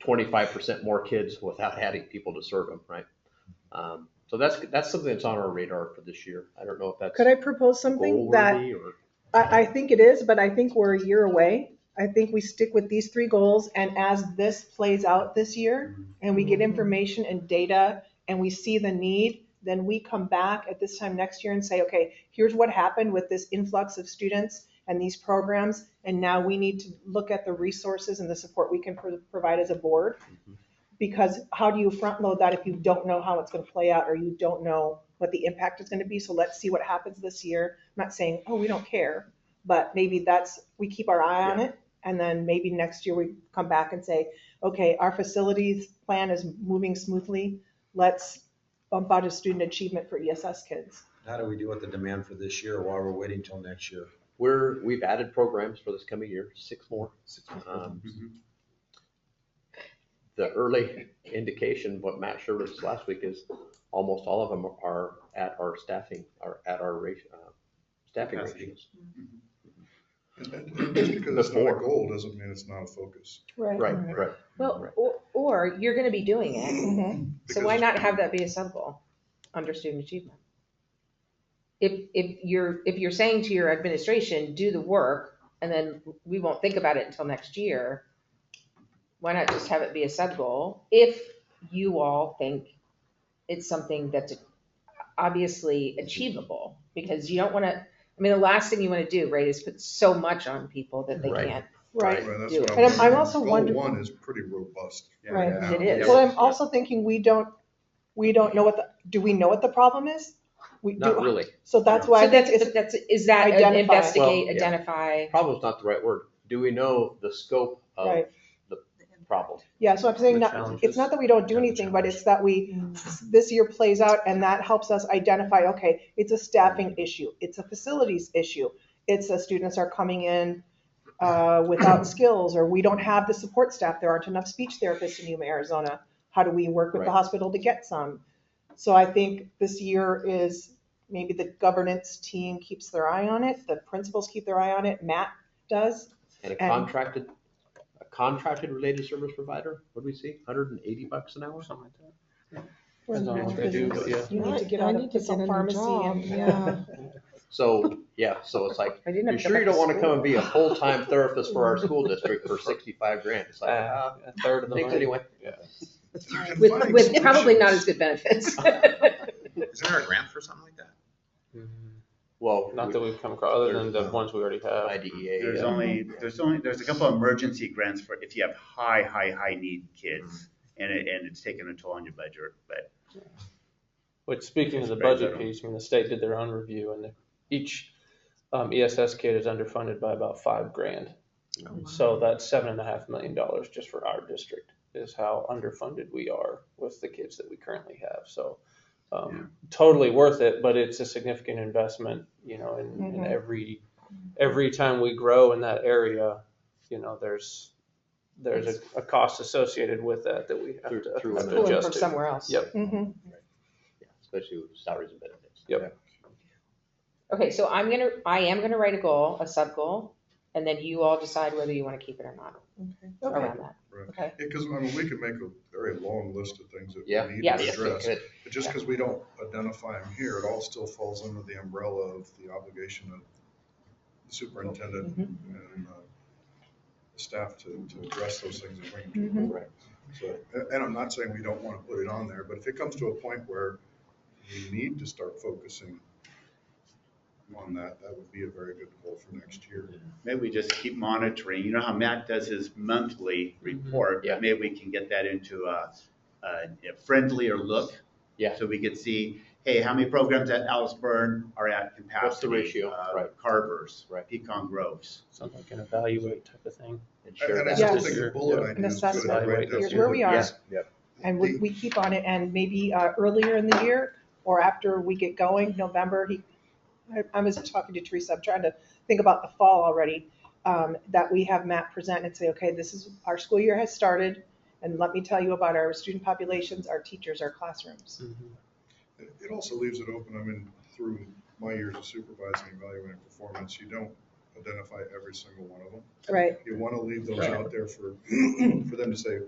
twenty-five percent more kids without adding people to serve them, right? Um, So that's, that's something that's on our radar for this year. I don't know if that's Could I propose something that goal-worthy or. I, I think it is, but I think we're a year away. I think we stick with these three goals and as this plays out this year and we get information and data and we see the need, then we come back at this time next year and say, okay, here's what happened with this influx of students and these programs. And now we need to look at the resources and the support we can pro- provide as a board. Because how do you front load that if you don't know how it's going to play out or you don't know what the impact is going to be? So let's see what happens this year. I'm not saying, oh, we don't care, but maybe that's, we keep our eye on it. And then maybe next year we come back and say, okay, our facilities plan is moving smoothly. Let's bump out a student achievement for ESS kids. How do we deal with the demand for this year while we're waiting till next year? We're, we've added programs for this coming year, six more. Uh, Um, The early indication, what Matt shared with us last week is almost all of them are at our staffing, are at our ratio, uh, staffing Capacity. ratios. And that- Just because it's not a Before. goal doesn't mean it's not a focus. Right, right. Mm-hmm. Well, or, or you're gonna be doing it, so why not have that be a sub-goal under student achievement? If, if you're, if you're saying to your administration, do the work, and then we won't think about it until next year, why not just have it be a sub-goal, if you all think it's something that's obviously achievable? Because you don't wanna, I mean, the last thing you wanna do, right, is put so much on people that they Right. can't. Right. Right, that's Do what it. And I'm- I'm wondering. also Goal wondering- One is pretty robust. Right. Yeah. It is. Well, I'm also thinking we don't, we don't know what the, do we know what the problem is? We Not do, really. so that's why So I think that's, it's, but that's, is that an Identify. investigate, Well, yeah. identify? Problem's not the right word. Do we know the scope of Right. the problem? yeah, so I'm saying The not, challenges. it's not that we don't do Yeah, the anything, but it's that we, this year plays out and that helps us identify, okay, it's a staffing issue, it's a facilities issue, it's the students are coming in uh, without skills, or we don't have the support staff, there aren't enough speech therapists in Yuma, Arizona. How do we work with the Right. hospital to get some? So I think this year is, maybe the governance team keeps their eye on it, the principals keep their eye on it, Matt does. And a And- contracted, a contracted related service provider, what do we see? Hundred and eighty bucks an hour? We're in Depends on the what they do, business. yeah. You need to get out of some pharmacy and. So, yeah, so it's like, I didn't you have to go sure you don't back to want to school. come and be a full-time therapist for our school district for sixty-five grand? It's like, ah, A third of the thanks money. anyway. You can With, find with probably not solutions. as good benefits. Isn't there a grant for something like that? Well, Not we- that we've come across, other than the ones we already have. IDEA, There's yeah. only, there's only, there's a couple of emergency grants for if you have high, high, high need kids. And it, and it's taken a toll on your budget, but Which, speaking of the Spread budget that out. piece, I mean, the state did their own review and each um, ESS kid is underfunded by about five grand. Oh, So that's seven and a half million dollars just for our district is how underfunded we are with the kids that we currently have. So um, totally worth it, but it's a significant investment, you know, and, and Mm-hmm. Mhm. every, every time we grow in that area, you know, there's, there's a, a cost associated with that that we have Through- to through have another- to Pulling from adjust to. somewhere else. Yep. Mhm. Yeah, especially with salaries and benefits. Yep. Okay, so I'm gonna, I am gonna write a goal, a sub-goal, and then you all decide whether you wanna keep it or not Okay. around that. Because, I mean, we could make a very long list of things that Yeah. we need Yes. to Yeah, so address. can it- But just because we don't identify them here, it all still falls under the umbrella of the obligation of the superintendent Mm-hmm. and uh, the staff to, to address those things and bring them to the Mhm. board. So, a- and I'm not saying we don't want to put it on there, but if it comes to a point where we need to start focusing on that, that would be a very good goal for next year. maybe we just keep monitoring. You know how Matt does his monthly report? Yeah. Maybe we can get that into a, a friendlier look. Yeah. So we could see, hey, how many programs at Allisburn are at capacity? ratio? uh, Right. Carvers. Right. Pecan Groves. Something I can evaluate type of thing. and And share and that. I still Yes. think the bullet idea is Yeah. An good. assessment. right? That's Here's where what we the- are. Yeah, yep. And we, we keep on it and maybe uh, earlier in the year or after we get going, November, he, I- I was talking to Teresa, I'm trying to think about the fall already, um, that we have Matt present and say, okay, this is, our school year has started and let me tell you about our student populations, our teachers, our classrooms. Mm-hmm. It it also leaves it open, I mean, through my years of supervising, evaluating performance, you don't identify every single one of them. Right. You want to leave those Right. out there for, for them to say,